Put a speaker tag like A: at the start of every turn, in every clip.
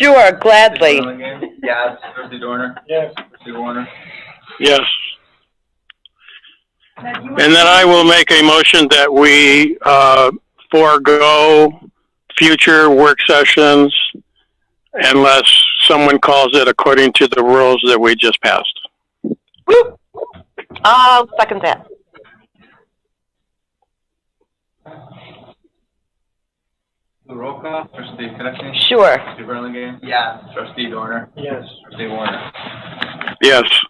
A: Sure, gladly.
B: Yes, trustee Dorner,
C: Yes.
B: trustee Warner.
D: Yes. And then I will make a motion that we uh, forego future work sessions unless someone calls it according to the rules that we just passed.
E: I'll second that.
B: The roll call, trustee Connectney,
A: Sure.
B: trustee Burlingame. Yes. Trustee Dorner,
C: Yes.
B: trustee Warner.
D: Yes.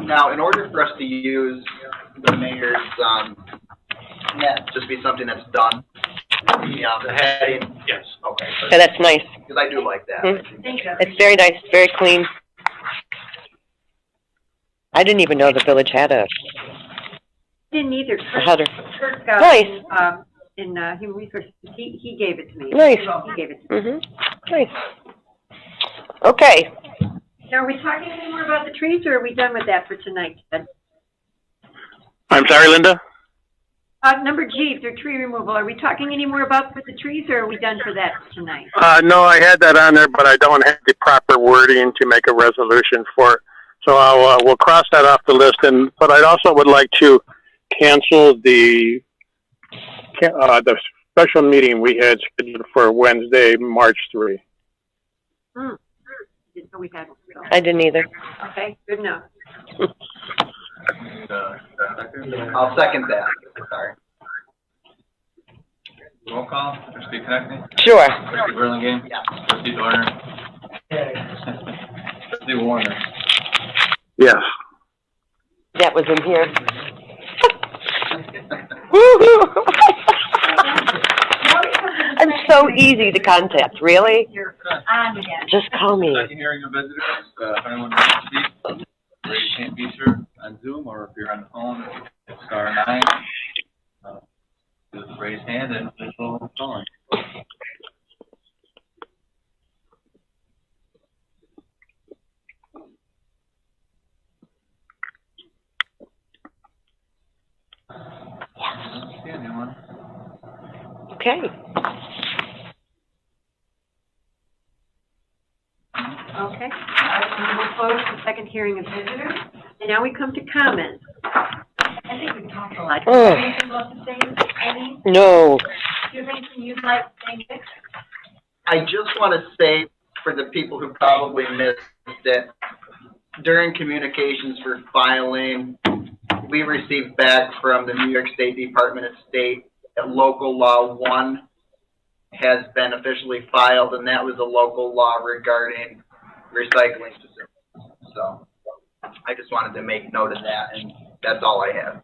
F: Now, in order for us to use the mayor's, um, net, just be something that's done, the, um, the heading, yes, okay,
A: Yeah, that's nice.
F: because I do like that.
A: Mhm. It's very nice, very clean. I didn't even know the village had a
G: Didn't either.
A: a
G: Kurt-
A: header.
G: Kurt got
A: Nice.
G: it, um, in, uh, human resources, he, he gave it to me.
A: Nice.
G: He gave it to me.
A: hmm nice. Okay,
G: Now, are we talking any more about the trees, or are we done with that for tonight, Ted?
D: I'm sorry, Linda?
G: Uh, number G, the tree removal, are we talking any more about for the trees, or are we done for that for tonight?
D: Uh, no, I had that on there, but I don't have the proper wording to make a resolution for it. So I'll, uh, we'll cross that off the list. And but I also would like to cancel the ca- uh, the special meeting we had scheduled for Wednesday, March three.
G: Didn't know we had one, so,
A: I didn't either.
G: okay, good enough.
B: Uh, second.
F: I'll second that, sorry.
B: Roll call, trustee Connectney,
A: Sure.
B: trustee Burlingame.
F: Yes.
B: Trustee Dorner, trustee Warner.
D: Yes.
A: That was in here. I'm so easy to contact, really. Just call me.
B: Second hearing of visitors, uh, if anyone wants to speak, or you can't be sure on Zoom, or if you're on the phone, it's star nine. Uh, Just raise hand and we'll call on. See anyone?
A: Okay.
G: Okay, Uh, we'll close the second hearing of visitors, and now we come to comments. I think we've talked a lot.
A: Oh.
G: Anything you want to say, Amy?
A: No.
G: Do you have anything you'd like to say, Nick?
F: I just want to say for the people who probably missed it, during communications for filing, we received back from the New York State Department of State that local law one has been officially filed, and that was a local law regarding recycling facilities. So I just wanted to make note of that, and that's all I have.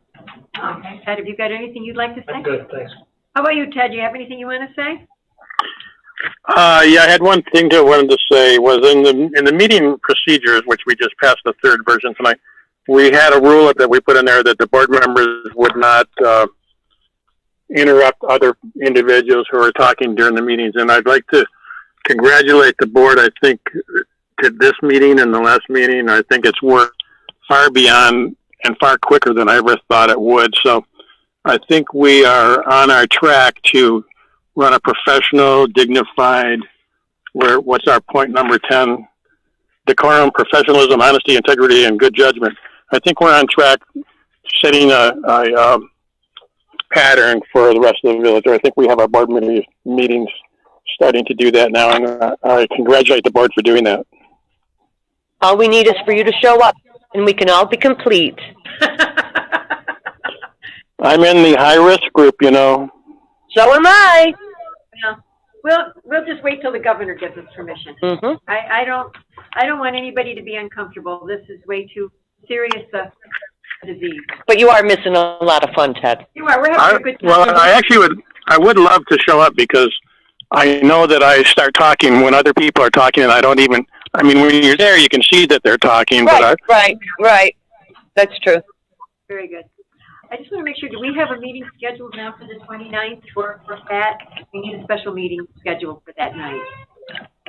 G: Okay, Ted, have you got anything you'd like to say?
C: I'm good, thanks.
G: How about you, Ted? Do you have anything you want to say?
D: Uh, yeah, I had one thing to wanted to say was in the in the meeting procedures, which we just passed the third version tonight. We had a rule that we put in there that the board members would not uh, interrupt other individuals who are talking during the meetings, and I'd like to congratulate the board. I think to this meeting and the last meeting, I think it's worked far beyond and far quicker than I ever thought it would. So, I think we are on our track to run a professional, dignified, where, what's our point number 10? Decorum, professionalism, honesty, integrity, and good judgment. I think we're on track setting a, a um, pattern for the rest of the village. Or I think we have our board meetings, meetings starting to do that now, and uh, I congratulate the board for doing that.
A: All we need is for you to show up and we can all be complete.
D: I'm in the high risk group, you know.
A: So am I.
G: Well, We'll, we'll just wait till the governor gives us permission.
A: hmm
G: I, I don't, I don't want anybody to be uncomfortable. This is way too serious a disease.
A: But you are missing a lot of fun, Ted.
G: You are, we're
D: I,
G: having a good time.
D: well, I actually would. I would love to show up because I know that I start talking when other people are talking, and I don't even. I mean, when you're there, you can see that they're talking,
A: Right, right, right. That's true.
G: Very good. I just want to make sure, do we have a meeting scheduled now for the 29th for, for that? We need a special meeting scheduled for that night.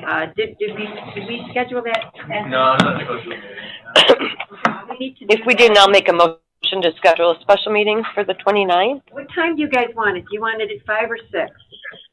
G: Uh, did, did we, did we schedule that?
B: No, I'm not supposed to.
G: We need to do
A: If we
G: that.
A: didn't, I'll make a motion to schedule a special meeting for the 29th.
G: What time do you guys want it? Do you want it at five or six?